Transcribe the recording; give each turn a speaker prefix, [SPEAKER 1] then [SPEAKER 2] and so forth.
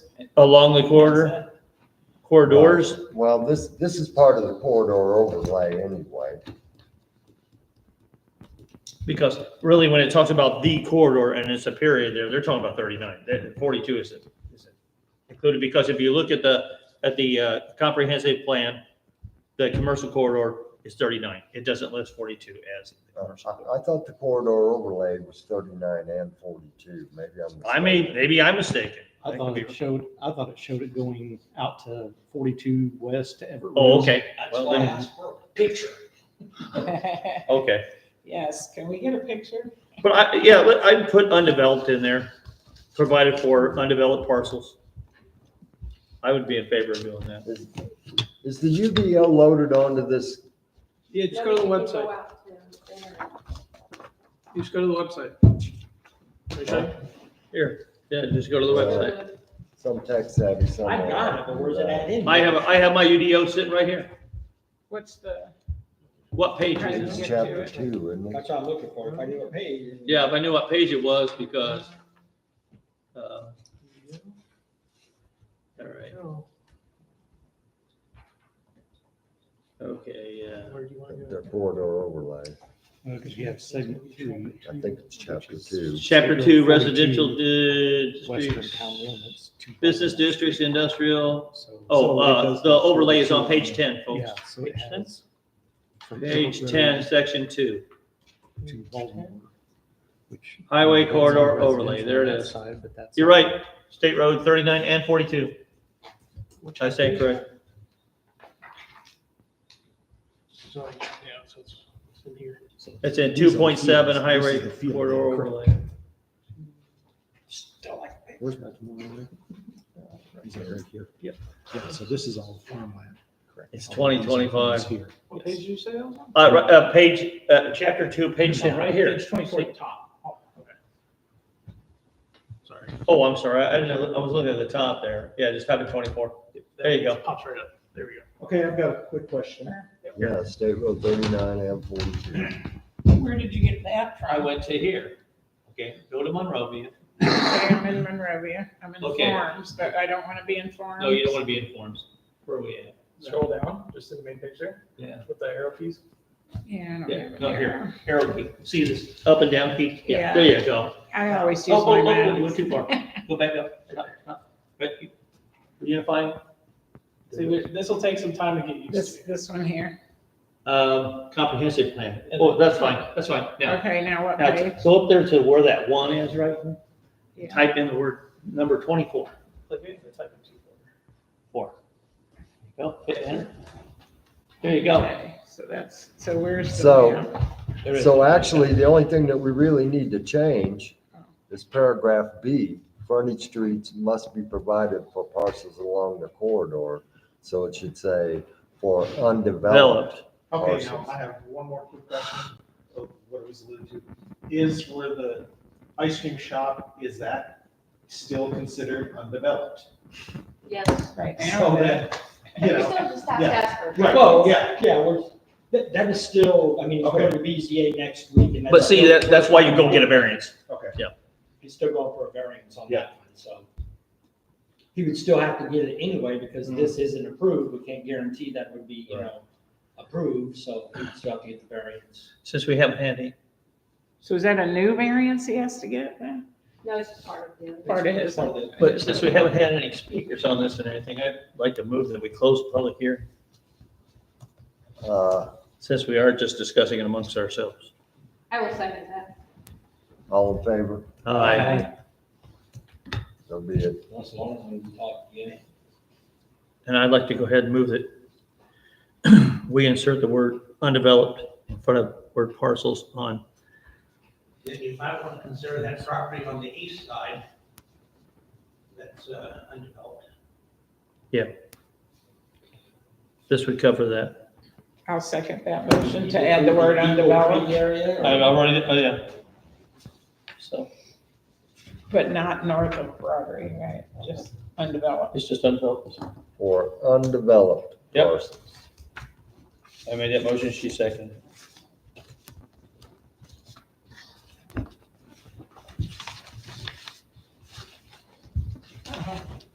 [SPEAKER 1] along the corridor, corridors.
[SPEAKER 2] Well, this, this is part of the corridor overlay anyway.
[SPEAKER 1] Because really, when it talks about the corridor and it's a period there, they're talking about thirty-nine, that forty-two is is included, because if you look at the, at the uh, comprehensive plan, the commercial corridor is thirty-nine, it doesn't list forty-two as the
[SPEAKER 2] Uh,
[SPEAKER 1] commercial. corridor.
[SPEAKER 2] I, I thought the corridor overlay was thirty-nine and forty-two, maybe I'm.
[SPEAKER 1] I mean, maybe I'm mistaken.
[SPEAKER 3] I
[SPEAKER 1] That
[SPEAKER 3] thought
[SPEAKER 1] could
[SPEAKER 3] it
[SPEAKER 1] be-
[SPEAKER 3] showed, I thought it showed it going out to forty-two west to Everett.
[SPEAKER 1] Oh, okay,
[SPEAKER 4] That's
[SPEAKER 1] Well,
[SPEAKER 4] why I
[SPEAKER 1] then-
[SPEAKER 4] asked for a picture.
[SPEAKER 1] okay,
[SPEAKER 4] Yes, can we get a picture?
[SPEAKER 1] but I, yeah, let- I'd put undeveloped in there, provided for undeveloped parcels. I would be in favor of doing that.
[SPEAKER 2] Is is the UBO loaded onto this?
[SPEAKER 5] Yeah, just go to the website. You Just go to the website. Okay?
[SPEAKER 1] Here, yeah, just go to the website.
[SPEAKER 2] website. Some tech savvy somewhere.
[SPEAKER 4] I've got it, but where's it at in?
[SPEAKER 1] I have, I have my UDO sitting right here.
[SPEAKER 5] What's the?
[SPEAKER 1] What page is
[SPEAKER 2] It's
[SPEAKER 1] it?
[SPEAKER 2] chapter two, isn't it?
[SPEAKER 4] That's what I'm looking for, if I knew a page.
[SPEAKER 1] Yeah, if I knew what page it was, because, uh, all right, okay, uh, yeah.
[SPEAKER 5] Where do you want to
[SPEAKER 2] The corridor overlay.
[SPEAKER 3] Because you Uh, have segment two.
[SPEAKER 2] I think it's chapter two.
[SPEAKER 1] Chapter two, residential di-
[SPEAKER 3] Western town limits.
[SPEAKER 1] business districts, industrial.
[SPEAKER 3] So-
[SPEAKER 1] Oh,
[SPEAKER 3] so it
[SPEAKER 1] uh,
[SPEAKER 3] does
[SPEAKER 1] the overlay is on page
[SPEAKER 3] 42.
[SPEAKER 1] ten, folks.
[SPEAKER 3] Yeah, so it
[SPEAKER 1] Page 10?
[SPEAKER 3] has. from
[SPEAKER 1] Page
[SPEAKER 3] Everett
[SPEAKER 1] ten, section two.
[SPEAKER 3] To Baltimore, which.
[SPEAKER 1] Highway
[SPEAKER 3] That's
[SPEAKER 1] corridor
[SPEAKER 3] all
[SPEAKER 1] overlay, there it
[SPEAKER 3] residential
[SPEAKER 1] is.
[SPEAKER 3] on that side, but that's-
[SPEAKER 1] You're right, State Road thirty-nine and forty-two,
[SPEAKER 5] Which
[SPEAKER 1] I say correct.
[SPEAKER 5] So, yeah, so it's, it's in here.
[SPEAKER 1] It's in
[SPEAKER 3] These are
[SPEAKER 1] two
[SPEAKER 3] the
[SPEAKER 1] point seven
[SPEAKER 3] fields.
[SPEAKER 1] highway
[SPEAKER 3] This is the field.
[SPEAKER 1] corridor overlay.
[SPEAKER 4] Still like a picture.
[SPEAKER 3] Where's Baltimore? right? Is that right here?
[SPEAKER 1] Yep.
[SPEAKER 3] Yeah, so this is all farmland. correct?
[SPEAKER 1] It's
[SPEAKER 3] All these are
[SPEAKER 1] 2025.
[SPEAKER 3] farms here.
[SPEAKER 5] What page did you say?
[SPEAKER 1] Uh, ri- uh, page, uh, chapter two, page ten, right here.
[SPEAKER 5] Page twenty-four, top. Oh, okay. Sorry.
[SPEAKER 1] Oh, I'm sorry, I didn't, I was looking at the top there. Yeah, just type in twenty-four. There you go.
[SPEAKER 5] Pops right up. There we go.
[SPEAKER 6] Okay, I've got a quick question.
[SPEAKER 2] Yeah, State Road thirty-nine and forty-two.
[SPEAKER 4] Where did you get that
[SPEAKER 1] I
[SPEAKER 4] from?
[SPEAKER 1] went to here. Okay, go to Monrovia.
[SPEAKER 7] I'm in Monrovia. I'm in
[SPEAKER 1] Okay.
[SPEAKER 7] forums, but I don't want to be in forums.
[SPEAKER 1] No, you don't want to be in forms. Where are we at?
[SPEAKER 6] Scroll down, just to the main picture.
[SPEAKER 1] Yeah.
[SPEAKER 6] With the arrow keys.
[SPEAKER 7] Yeah, I don't
[SPEAKER 1] Yeah,
[SPEAKER 7] have an
[SPEAKER 1] no,
[SPEAKER 7] arrow.
[SPEAKER 1] here, arrow key. See this up and down key? Yeah,
[SPEAKER 7] Yeah.
[SPEAKER 1] there you go.
[SPEAKER 7] I always
[SPEAKER 1] Oh,
[SPEAKER 7] use my
[SPEAKER 1] oh, oh, You
[SPEAKER 7] mouse.
[SPEAKER 1] went too far. Go back up. Up, up. Right, you- Unifying.
[SPEAKER 5] See, this'll take some time to get used
[SPEAKER 7] This,
[SPEAKER 5] to.
[SPEAKER 7] this one here.
[SPEAKER 1] Um, comprehensive plan. Oh, that's fine, that's fine. Now,
[SPEAKER 7] Okay, now what page?
[SPEAKER 1] now, go up there to where that one is, right?
[SPEAKER 7] Yeah.
[SPEAKER 1] Type in the word number twenty-four.
[SPEAKER 5] Click it, it's like a two.
[SPEAKER 1] Four. Well, hit enter. There you go.
[SPEAKER 7] Okay, So that's, so where's the?
[SPEAKER 2] So-
[SPEAKER 7] map?
[SPEAKER 1] There it is.
[SPEAKER 2] So actually, the only thing that we really need to change is paragraph B. Frontage streets must be provided for parcels along the corridor. So it should say for undeveloped.
[SPEAKER 6] Okay, now
[SPEAKER 2] Parcels.
[SPEAKER 6] I have one more quick question of what it was alluded to. Is where the ice cream shop, is that still considered undeveloped?
[SPEAKER 8] Yes.
[SPEAKER 7] Right
[SPEAKER 6] So
[SPEAKER 7] now, that-
[SPEAKER 6] that, you
[SPEAKER 8] You
[SPEAKER 6] know,
[SPEAKER 8] still just have
[SPEAKER 6] yeah.
[SPEAKER 8] to ask for.
[SPEAKER 6] Right.
[SPEAKER 4] Well, yeah, yeah, we're, that, that is still, I mean, it's going
[SPEAKER 6] Okay.
[SPEAKER 4] to BZA next week and that's.
[SPEAKER 1] But see, that, that's why you go get a variance.
[SPEAKER 6] okay.
[SPEAKER 4] He's still going for a variance on
[SPEAKER 6] Yeah.
[SPEAKER 4] that one, so. He would still have to get it anyway, because this isn't approved, we can't guarantee that would be, you know, approved, so he'd still have to get the variance.
[SPEAKER 1] Since we haven't had any.
[SPEAKER 7] so is that a new variance he has to get then?
[SPEAKER 8] No, it's just part of the.
[SPEAKER 7] Part of his.
[SPEAKER 4] Part of the-
[SPEAKER 1] But since we haven't had any speakers on this and anything, I'd like to move that we close the public hearing,
[SPEAKER 2] Uh,
[SPEAKER 1] since we are just discussing it amongst ourselves.
[SPEAKER 8] I will second that.
[SPEAKER 2] All in favor?
[SPEAKER 1] Aye.
[SPEAKER 2] So be it.
[SPEAKER 4] Once long as we can talk again.
[SPEAKER 1] And I'd like to go ahead and move that we insert the word undeveloped in front of word parcels on,
[SPEAKER 9] then you might want to consider that property on the east side that's uh, undeveloped.
[SPEAKER 1] this would cover that.
[SPEAKER 7] I'll second that motion to add the word undeveloped,
[SPEAKER 4] Area,
[SPEAKER 1] I've already, oh, yeah. So
[SPEAKER 7] but not north of Broadway, right? Just undeveloped.
[SPEAKER 1] it's just undeveloped.
[SPEAKER 2] For undeveloped
[SPEAKER 1] Yep.
[SPEAKER 2] parcels.
[SPEAKER 1] I made that motion, she seconded.